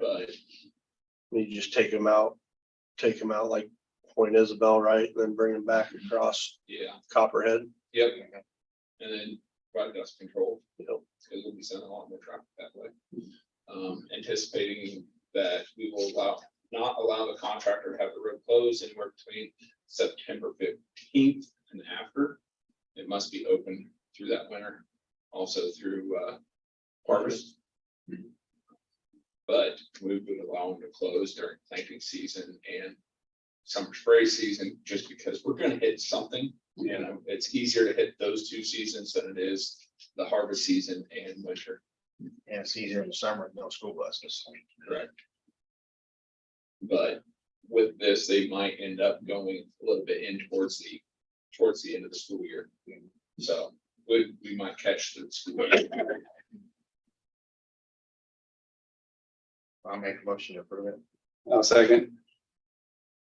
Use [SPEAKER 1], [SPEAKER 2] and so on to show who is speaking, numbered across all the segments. [SPEAKER 1] Right.
[SPEAKER 2] You just take them out, take them out like Point Isabel, right? and Then bring them back
[SPEAKER 3] Mhm.
[SPEAKER 2] across
[SPEAKER 1] Yeah,
[SPEAKER 2] Copperhead.
[SPEAKER 1] yep. And then right dust control,
[SPEAKER 2] You know,
[SPEAKER 1] because we'll be sending a lot more traffic that way. Um, anticipating that we will allow, not allow the contractor to have the road closed anywhere between September fifteenth and after. It must be open through that winter, also through, uh, harvest. But we would allow them to close during planting season and summer spray season, just because we're gonna hit something. You know, it's easier to hit those two seasons than it is the harvest season and winter.
[SPEAKER 3] And it's easier in the summer, with no school buses.
[SPEAKER 1] But with this, they might end up going a little bit in towards the, towards the end of the school year. So we, we might catch the school. year.
[SPEAKER 3] I'll make a motion to approve it.
[SPEAKER 4] I'll second.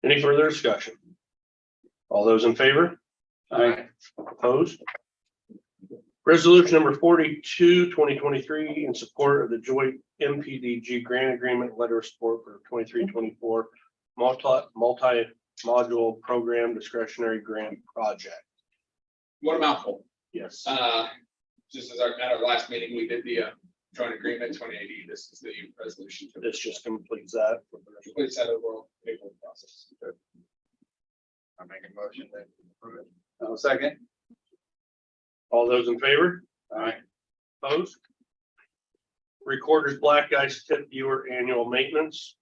[SPEAKER 2] Any further discussion? All those in favor,
[SPEAKER 4] Aye.
[SPEAKER 2] opposed? Resolution number 42, 2023, in support of the joint MPDG grant agreement letter of support for twenty-three, twenty-four multi, multi-module program discretionary grant project.
[SPEAKER 1] What a mouthful.
[SPEAKER 2] Yes.
[SPEAKER 1] Uh, just as our, at our last meeting, we did the uh, joint agreement twenty eighty. This is the resolution. to-
[SPEAKER 2] This just completes that.
[SPEAKER 1] Completes that overall paperwork process.
[SPEAKER 3] I'll make a motion to approve it.
[SPEAKER 4] I'll second.
[SPEAKER 2] All those in favor?
[SPEAKER 4] Aye.
[SPEAKER 2] Opposed? Recorder's black Ice tip viewer annual maintenance.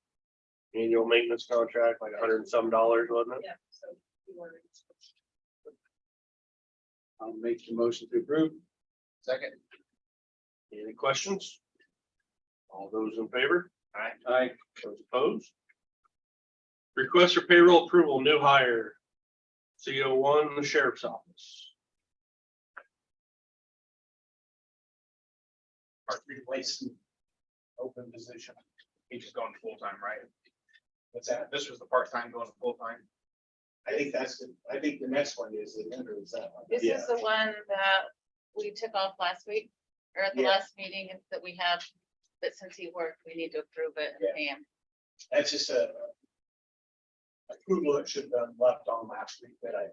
[SPEAKER 2] Annual maintenance contract, like a hundred and some dollars, wasn't it?
[SPEAKER 5] Yeah, so. you ordered it.
[SPEAKER 4] I'll make the motion to approve.
[SPEAKER 3] Second,
[SPEAKER 2] Any questions? All those in favor?
[SPEAKER 4] Aye.
[SPEAKER 2] Those opposed? Request for payroll approval, new hire. CO one, the sheriff's office.
[SPEAKER 6] Our replace an open position. He's just going full time, right? What's that? This was the part time going full time. I think that's, the- I think the next one is the number is that one.
[SPEAKER 5] This is the one that we took off last week, or at the
[SPEAKER 6] Yeah.
[SPEAKER 5] last meeting that we have, that since he worked, we need to approve it
[SPEAKER 6] Yeah.
[SPEAKER 5] and pay him.
[SPEAKER 6] That's just a. Approval that should have been left on last week that I,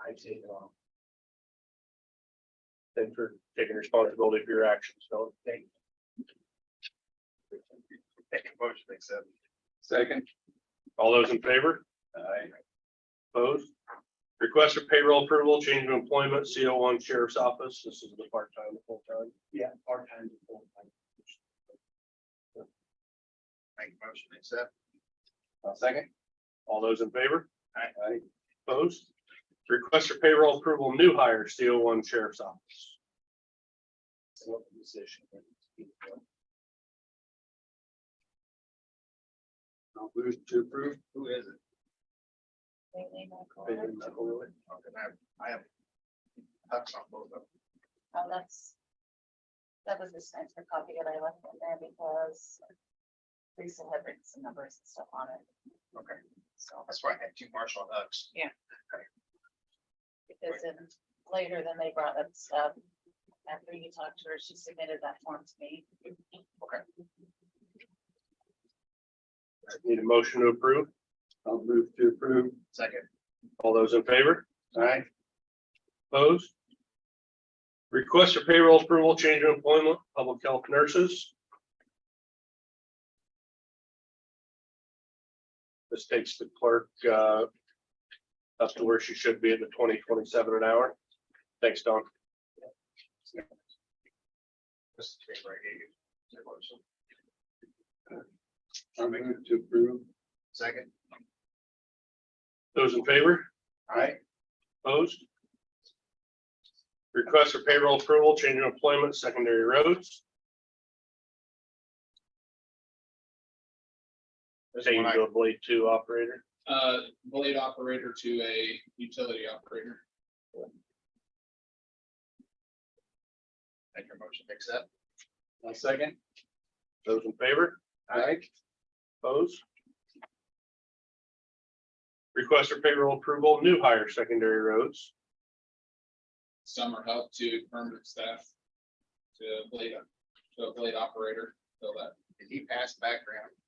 [SPEAKER 6] I did on.
[SPEAKER 2] Thanks for taking responsibility for your actions, so thank you.
[SPEAKER 3] make a motion, to accept.
[SPEAKER 4] Second.
[SPEAKER 2] All those in favor?
[SPEAKER 4] Aye.
[SPEAKER 2] Opposed? Request for payroll approval, change of employment, CO one sheriff's office. This is the part-time, full-time.
[SPEAKER 6] Yeah, part time to full time.
[SPEAKER 3] make a motion, to accept.
[SPEAKER 4] I'll second.
[SPEAKER 2] All those in favor?
[SPEAKER 4] Aye.
[SPEAKER 2] Opposed? Request for payroll approval, new hire, CO one sheriff's office.
[SPEAKER 6] It's an open position.
[SPEAKER 4] I'll move to approve. Who is it?
[SPEAKER 5] Lately, Michael,
[SPEAKER 3] And I have, I have. Hucks on both of them.
[SPEAKER 5] Oh, that's. That was this nice for copy that I left in there because. Lisa had written some numbers and stuff on it,
[SPEAKER 3] Okay, so that's why I had two Marshall Hucks.
[SPEAKER 5] because then later then they brought up stuff. After you talked to her, she submitted that form to me.
[SPEAKER 2] Need a motion to approve?
[SPEAKER 4] I'll move to approve.
[SPEAKER 3] Second,
[SPEAKER 2] All those in favor?
[SPEAKER 4] Aye.
[SPEAKER 2] Opposed? Request for payroll approval, change of employment, public health nurses. This takes the clerk uh, up to where she should be at the twenty twenty-seven an hour. Thanks, Don.
[SPEAKER 3] this is the paper I gave you. Make a motion.
[SPEAKER 4] I'll move to approve.
[SPEAKER 3] Second,
[SPEAKER 2] Those in favor?
[SPEAKER 4] Aye.
[SPEAKER 2] Opposed? Request for payroll approval, change of employment, secondary roads.
[SPEAKER 3] This
[SPEAKER 2] Change
[SPEAKER 3] one I-
[SPEAKER 2] to a blade two operator.
[SPEAKER 1] Uh, blade operator to a utility operator.
[SPEAKER 3] make your motion, to accept.
[SPEAKER 4] I'll second.
[SPEAKER 2] Those in favor?
[SPEAKER 4] Aye.
[SPEAKER 2] Opposed? Request for payroll approval, new hire secondary roads.
[SPEAKER 1] summer help to permanent staff. To blade, to a blade operator, so that
[SPEAKER 3] Did he pass background?